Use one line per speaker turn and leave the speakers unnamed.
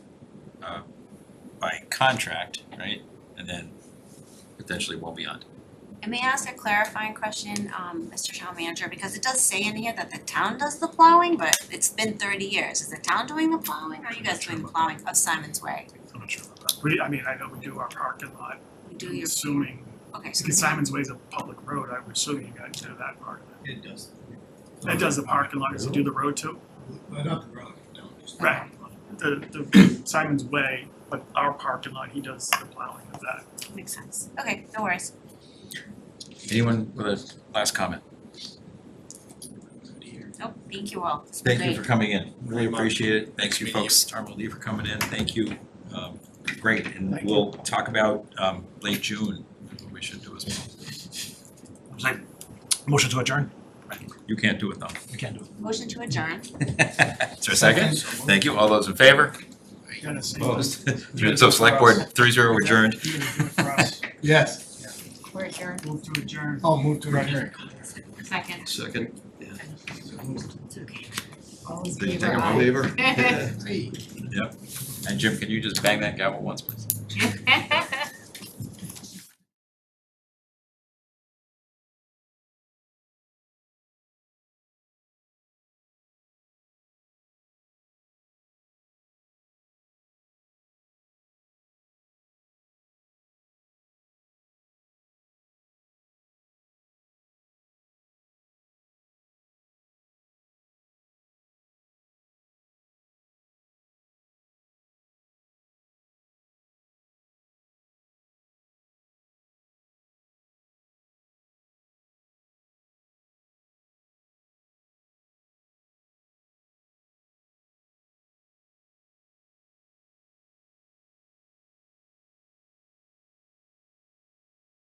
uh, by contract, right? And then potentially well beyond.
And may I ask a clarifying question, um, Mr. Town Manager, because it does say in here that the town does the plowing, but it's been thirty years, is the town doing the plowing, or are you guys doing the plowing of Simon's Way?
I'm not sure about that. We, I mean, I know we do our parking lot,
You do
I'm
your,
assuming,
okay, so
because Simon's Way is a public road, I would assume you guys do that part of it.
It does.
That does the parking lot, does it do the road too?
Uh-huh.
Well, not the road, no, just.
Right, the, the Simon's Way, but our parking lot, he does the plowing of that.
makes sense, okay, no worries.
Anyone with a last comment?
Nope, thank you all, it's been
Thank you
great.
for coming in. Really appreciate it. Thank you,
meeting you.
folks. Armel Lee for coming in. Thank you. Um, Great, and
Thank you.
we'll talk about um, late June, what we should do as well.
Motion to adjourn?
You can't do it though.
We can't do it.
Motion to adjourn,
Is there a second? Thank you. All those in favor?
You gotta say-
Opposed? So select board three zero adjourned.
You're gonna do it for us.
Yes.
we're adjourned,
Move to adjourn.
Oh, move to adjourn.
second,
Second.
it's okay.
All
Did you take a vote?
Favor?
And Jim, can you just bang that gavel once, please?
Aye.